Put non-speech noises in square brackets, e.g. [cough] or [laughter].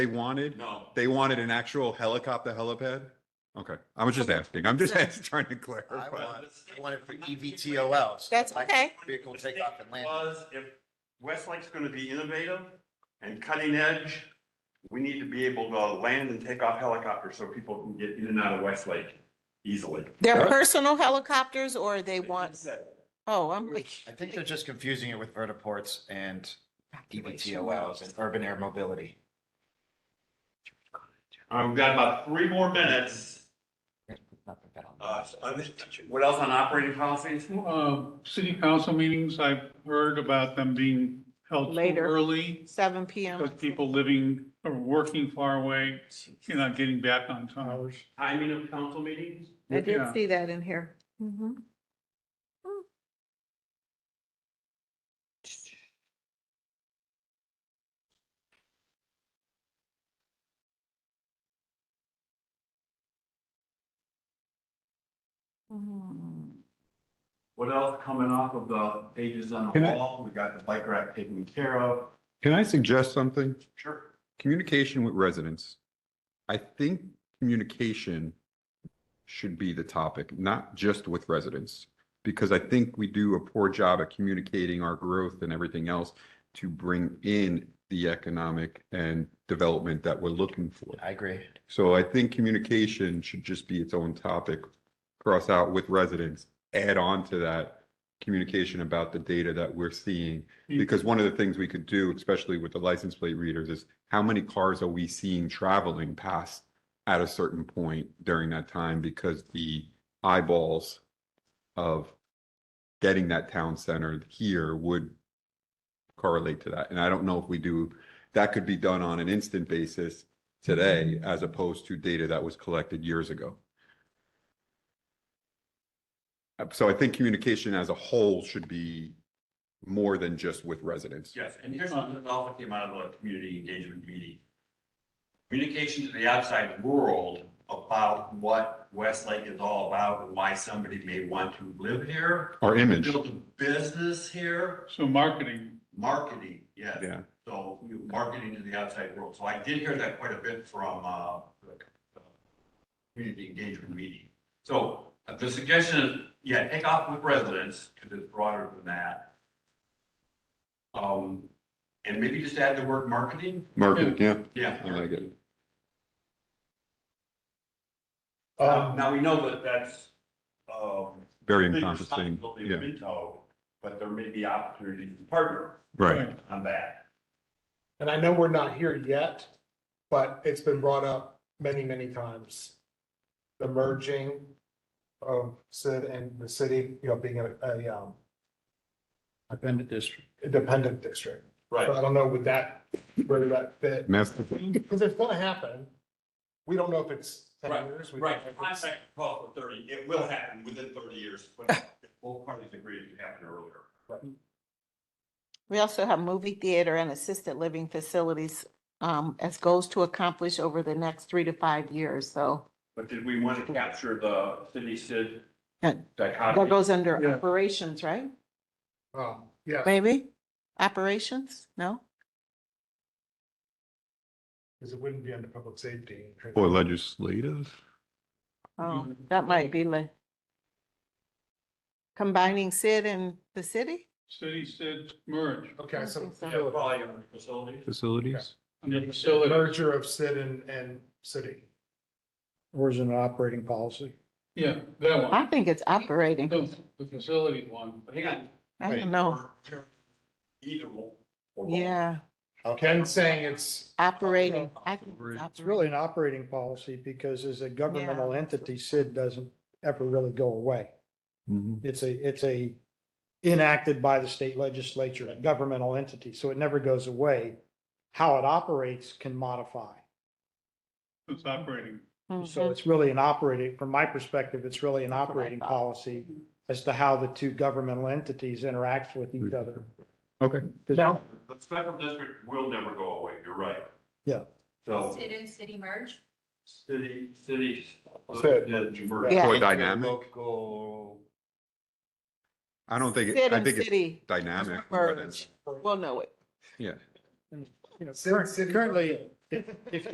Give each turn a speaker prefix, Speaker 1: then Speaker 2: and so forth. Speaker 1: they wanted?
Speaker 2: No.
Speaker 1: They wanted an actual helicopter helipad? Okay, I was just asking. I'm just [laughs]
Speaker 3: [laughs]
Speaker 1: asking- trying to
Speaker 3: I
Speaker 1: clarify.
Speaker 3: want, I want it for E EVTOLs.
Speaker 4: That's
Speaker 3: Like
Speaker 4: okay.
Speaker 3: Vehicle takeoff and landing.
Speaker 2: Was if Westlake's gonna be innovative and cutting edge, we need to be able to land and take off helicopters so people can get in and out of Westlake easily.
Speaker 1: Yeah.
Speaker 4: They're personal helicopters or they want,
Speaker 2: Said,
Speaker 4: oh, I'm like.
Speaker 3: I think they're just confusing it with vertiports and E EVTOLs and urban air mobility.
Speaker 2: All right, we've got about three more minutes. Uh, What else on operating policies?
Speaker 5: Uh, City council meetings, I've heard about them being held too
Speaker 4: Later.
Speaker 5: early
Speaker 4: Seven PM.
Speaker 5: because people living or working far away, you know, getting back on towers.
Speaker 2: Timing of council meetings?
Speaker 4: I did
Speaker 5: Yeah.
Speaker 4: see that in here. Mhm. Mm.
Speaker 2: What else coming off of the pages on the
Speaker 1: Can I-
Speaker 2: wall? We got the bike rack taken care of.
Speaker 1: Can I suggest something?
Speaker 2: Sure.
Speaker 1: Communication with residents. I think communication should be the topic, not just with residents. Because I think we do a poor job at communicating our growth and everything else to bring in the economic and development that we're looking for.
Speaker 3: I agree.
Speaker 1: So I think communication should just be its own topic. Cross out with residents, add on to that communication about the data that we're seeing. Because one of the things we could do, especially with the license plate readers, is how many cars are we seeing traveling past at a certain point during that time because the eyeballs of getting that town center here would correlate to that. And I don't know if we do, that could be done on an instant basis today as opposed to data that was collected years ago. Uh, So I think communication as a whole should be more than just with residents.
Speaker 2: Yes, and here's something that also came out of the community engagement meeting. Communication to the outside world about what Westlake is all about and why somebody may want to live here,
Speaker 1: Our image,
Speaker 2: build a business here,
Speaker 5: So marketing,
Speaker 2: marketing, yes.
Speaker 1: yeah.
Speaker 2: So you know, marketing to the outside world. So I did hear that quite a bit from uh, the uh, community engagement meeting. So uh, the suggestion is, yeah, take off with residents because it's broader than that. Um, And maybe just add the word marketing.
Speaker 1: Marketing, yeah,
Speaker 2: Yeah.
Speaker 1: I like it.
Speaker 2: Um, Now, we know that that's. um,
Speaker 1: Very
Speaker 2: big
Speaker 1: encompassing,
Speaker 2: responsibility of
Speaker 1: yeah,
Speaker 2: Minto, But there may be opportunities to partner
Speaker 1: right.
Speaker 2: on that.
Speaker 6: And I know we're not here yet, but it's been brought up many, many times. The merging of Sid and the city, you know, being a, a, um,
Speaker 3: Dependent district.
Speaker 6: independent district.
Speaker 2: Right.
Speaker 6: So I don't know with that, whether that fit,
Speaker 1: Master,
Speaker 6: because it's gonna happen. We don't know if it's ten
Speaker 2: Right,
Speaker 6: years. we don't
Speaker 2: Right,
Speaker 6: know if it's-
Speaker 2: contract call for thirty, it will happen within thirty years, but both parties agree it happened earlier.
Speaker 4: We also have movie theater and assisted living facilities um, as goals to accomplish over the next three to five years. So
Speaker 2: But did we want to capture the city Sid
Speaker 4: Yeah. that
Speaker 2: dichotomy?
Speaker 4: goes under
Speaker 5: Yeah.
Speaker 4: operations, right?
Speaker 6: Um, yeah,
Speaker 4: Maybe? Operations? No?
Speaker 6: because it wouldn't be under public safety.
Speaker 1: or legislative?
Speaker 4: Oh,
Speaker 1: Mm-hmm.
Speaker 4: that might be like combining Sid and the city?
Speaker 5: city said merge.
Speaker 6: Okay, so.
Speaker 4: Yeah,
Speaker 2: Volume facilities.
Speaker 1: Facilities?
Speaker 5: And then
Speaker 6: The
Speaker 5: facility,
Speaker 6: merger of Sid and, and city.
Speaker 5: yeah, that
Speaker 4: I
Speaker 5: one.
Speaker 4: think it's operating.
Speaker 5: The the facility one.
Speaker 2: But Hang on.
Speaker 4: I don't know.
Speaker 2: Either one. or both.
Speaker 4: Yeah,
Speaker 6: Ken's saying it's
Speaker 4: operating. I think
Speaker 1: It's
Speaker 7: It's really an operating policy because as a governmental entity, SID doesn't ever really go away. It's a, it's a enacted by the state legislature, a governmental entity, so it never goes away. How it operates can modify.
Speaker 5: It's operating.
Speaker 7: So
Speaker 4: Mhm.
Speaker 7: it's really an operating, from my perspective, it's really an
Speaker 4: That's what I
Speaker 7: operating
Speaker 4: thought.
Speaker 7: policy as to how the two governmental entities interact with each other.
Speaker 1: Okay.
Speaker 7: Now,
Speaker 2: The special district will never go away, you're right.
Speaker 7: Yeah.
Speaker 2: So,
Speaker 8: Sit in city merge?
Speaker 2: city, city.
Speaker 6: Sid.
Speaker 4: Yeah.
Speaker 1: Or dynamic?
Speaker 3: Local.
Speaker 1: I don't think,
Speaker 4: Sid
Speaker 1: it- I
Speaker 4: and
Speaker 1: think it's
Speaker 4: city
Speaker 1: dynamic. but it's-
Speaker 4: merge. We'll know it.
Speaker 1: Yeah,
Speaker 7: you know,
Speaker 6: Sid- City
Speaker 7: Currently, If